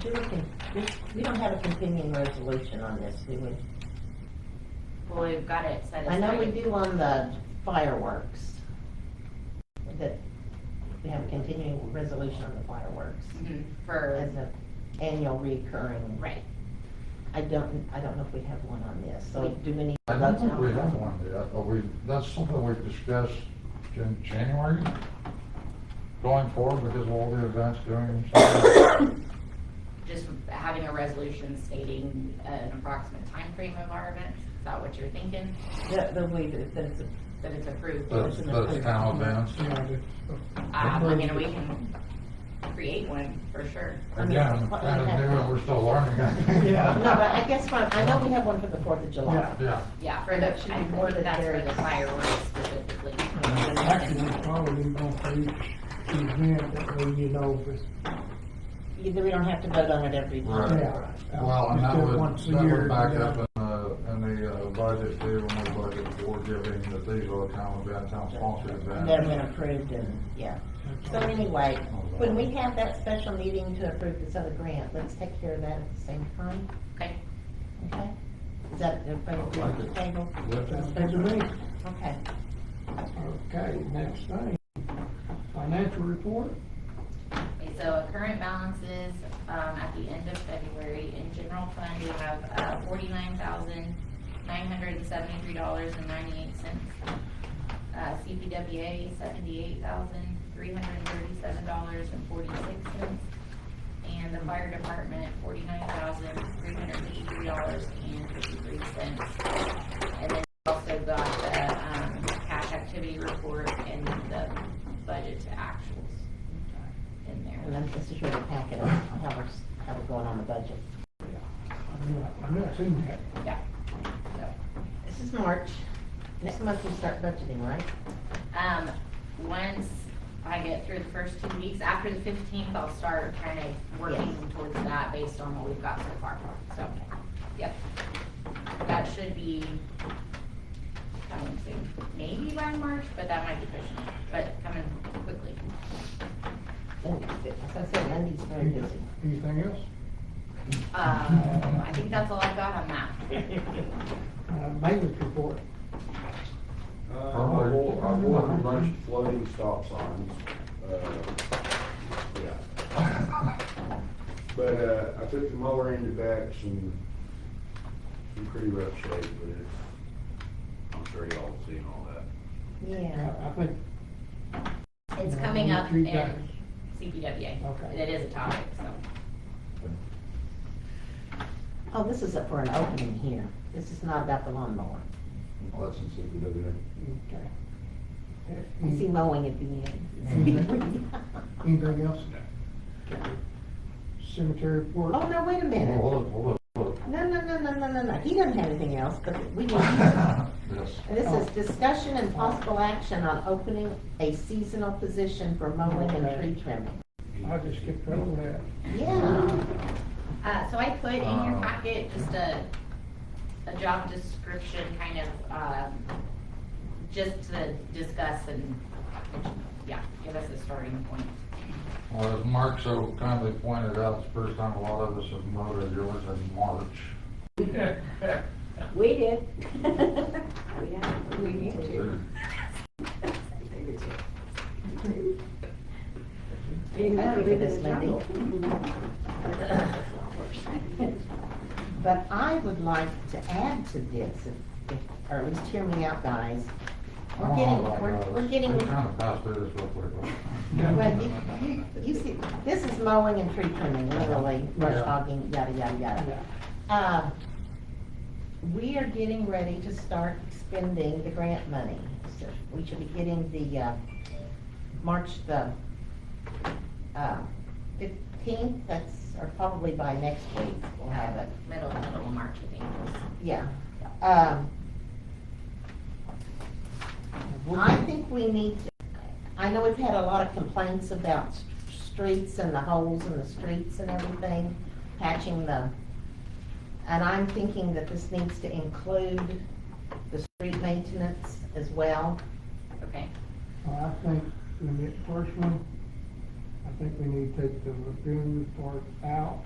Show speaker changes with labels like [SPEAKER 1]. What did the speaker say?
[SPEAKER 1] do a con- this, we don't have a continuing resolution on this, do we?
[SPEAKER 2] Well, we've got it set
[SPEAKER 1] I
[SPEAKER 2] aside.
[SPEAKER 1] know we do on the fireworks. That we have a continuing resolution on the fireworks
[SPEAKER 2] Mhm,
[SPEAKER 1] as
[SPEAKER 2] For,
[SPEAKER 1] an annual recurring.
[SPEAKER 2] right,
[SPEAKER 1] I don't, I don't know if we have one on this, so
[SPEAKER 2] We-
[SPEAKER 1] do many
[SPEAKER 3] I
[SPEAKER 1] of
[SPEAKER 3] don't
[SPEAKER 1] those
[SPEAKER 3] think we
[SPEAKER 1] now?
[SPEAKER 3] have one yet, but we, that's something we've discussed in January, going forward because of all the events during summer.
[SPEAKER 2] just having a resolution stating an approximate time frame of our events, is that what you're thinking?
[SPEAKER 1] The, the way that that it's a
[SPEAKER 2] That it's approved?
[SPEAKER 3] Those, those town events.
[SPEAKER 2] Um, I mean, we can create one for sure.
[SPEAKER 3] Again, kind of new and we're still learning.
[SPEAKER 4] Yeah.
[SPEAKER 1] No, but I guess what, I know we have one for the Fourth of July.
[SPEAKER 3] Yeah,
[SPEAKER 2] Yeah, for the, I
[SPEAKER 1] That should be more than
[SPEAKER 2] think that's for
[SPEAKER 1] there
[SPEAKER 2] the
[SPEAKER 1] is.
[SPEAKER 2] fireworks specifically.
[SPEAKER 4] Actually, we're probably going for each event, that way you know, but,
[SPEAKER 1] Either we don't have to vote on it every
[SPEAKER 3] Right.
[SPEAKER 1] time.
[SPEAKER 4] yeah.
[SPEAKER 3] well, and that
[SPEAKER 4] Just do it
[SPEAKER 3] would,
[SPEAKER 4] once a
[SPEAKER 3] that
[SPEAKER 4] year,
[SPEAKER 3] would back
[SPEAKER 4] you know.
[SPEAKER 3] up in the, in the uh, budget too, when we budget for giving, that these are the town event, town sponsored events.
[SPEAKER 1] They've been approved and, yeah. So anyway, when we have that special meeting to approve this other grant, let's take care of that at the same time,
[SPEAKER 2] Okay,
[SPEAKER 1] okay? Is that, everybody agree on the table?
[SPEAKER 4] Sounds good to me.
[SPEAKER 1] Okay.
[SPEAKER 4] Okay, next thing, financial report,
[SPEAKER 2] Okay, so current balances, um, at the end of February in general fund, we have, uh, forty-nine thousand, nine hundred and seventy-three dollars and ninety-eight cents. Uh, CPWA, seventy-eight thousand, three hundred and thirty-seven dollars and forty-six cents. And the fire department, forty-nine thousand, three hundred and eighty-three dollars and fifty-three cents. And then we also got the, um, cash activity report and the budget to actuals uh, in there.
[SPEAKER 1] And then this is really packet of how we're, s- how we're going on the budget.
[SPEAKER 4] I've not, I've not seen that.
[SPEAKER 2] Yeah. So,
[SPEAKER 1] This is March. Next month we start budgeting, right?
[SPEAKER 2] Um, once I get through the first two weeks, after the fifteenth, I'll start kind of working
[SPEAKER 1] Yes.
[SPEAKER 2] towards that based on what we've got so far. So, yep. That should be, I would say, maybe by March, but that might be pushing it, but coming quickly.
[SPEAKER 1] And As I said, Monday's very busy.
[SPEAKER 4] Anything else?
[SPEAKER 2] Um, I think that's all I've got on that.
[SPEAKER 4] Uh, maintenance report,
[SPEAKER 5] Uh, I will, I will have a bunch of floating stop signs, uh, yeah. But, uh, I took the mower into Bex and in pretty rough shape, but it's, I'm sure y'all have seen all that.
[SPEAKER 4] I,
[SPEAKER 1] Yeah.
[SPEAKER 4] I think,
[SPEAKER 2] It's
[SPEAKER 4] Yeah,
[SPEAKER 2] coming
[SPEAKER 4] you
[SPEAKER 2] up in
[SPEAKER 4] treat that.
[SPEAKER 2] CPWA.
[SPEAKER 4] Okay.
[SPEAKER 2] It is a topic, so.
[SPEAKER 1] Oh, this is for an opening here. This is not about the lawnmower.
[SPEAKER 3] Well, that's in CPW.
[SPEAKER 4] okay.
[SPEAKER 1] You see
[SPEAKER 4] Any-
[SPEAKER 1] mowing at the end.
[SPEAKER 4] Anything else? Cemetery report,
[SPEAKER 1] Oh, no, wait a minute.
[SPEAKER 3] Hold it, hold it, hold
[SPEAKER 1] No, no, no, no, no, no, no. He doesn't have anything else, but we need.
[SPEAKER 3] it. Yes.
[SPEAKER 1] This is discussion and possible action on opening a seasonal position for mowing and tree trimming.
[SPEAKER 4] I just skipped over that.
[SPEAKER 1] Yeah.
[SPEAKER 2] Uh, so I put in your
[SPEAKER 3] Uh,
[SPEAKER 2] packet just a, a job description kind of, um, just to discuss and, yeah, give us a starting point.
[SPEAKER 3] Well, as Mark so kindly pointed out, it's the first time a lot of us have mowed a yard in March.
[SPEAKER 6] We did. Yeah, we need to. Being
[SPEAKER 1] I
[SPEAKER 6] married
[SPEAKER 1] agree with
[SPEAKER 6] is
[SPEAKER 1] this
[SPEAKER 6] a
[SPEAKER 1] lady.
[SPEAKER 6] jungle.
[SPEAKER 1] But I would like to add to this, if- if- or at least hear me out, guys.
[SPEAKER 3] Oh, I
[SPEAKER 1] We're getting, we're,
[SPEAKER 3] don't know about y'all,
[SPEAKER 1] we're
[SPEAKER 3] let's-
[SPEAKER 1] getting,
[SPEAKER 3] Let's kind of pass through this real quick.
[SPEAKER 1] well, you, you- you see, this is mowing and tree trimming, literally, brush
[SPEAKER 3] Yeah.
[SPEAKER 1] hogging, yada, yada, yada.
[SPEAKER 4] Yeah.
[SPEAKER 1] Uh, We are getting ready to start spending the grant money. So We should be getting the, uh, March the uh, fifteenth, that's, or probably by next week, we'll have it.
[SPEAKER 2] Uh, Middle, middle of March, I think.
[SPEAKER 1] Yeah. Um, I think we need, to- I know we've had a lot of complaints about s- streets and the holes in the streets and everything, patching the, and I'm thinking that this needs to include the street maintenance as well.
[SPEAKER 2] Okay,
[SPEAKER 4] Well, I think, in it personally, I think we need to take the lagoon part out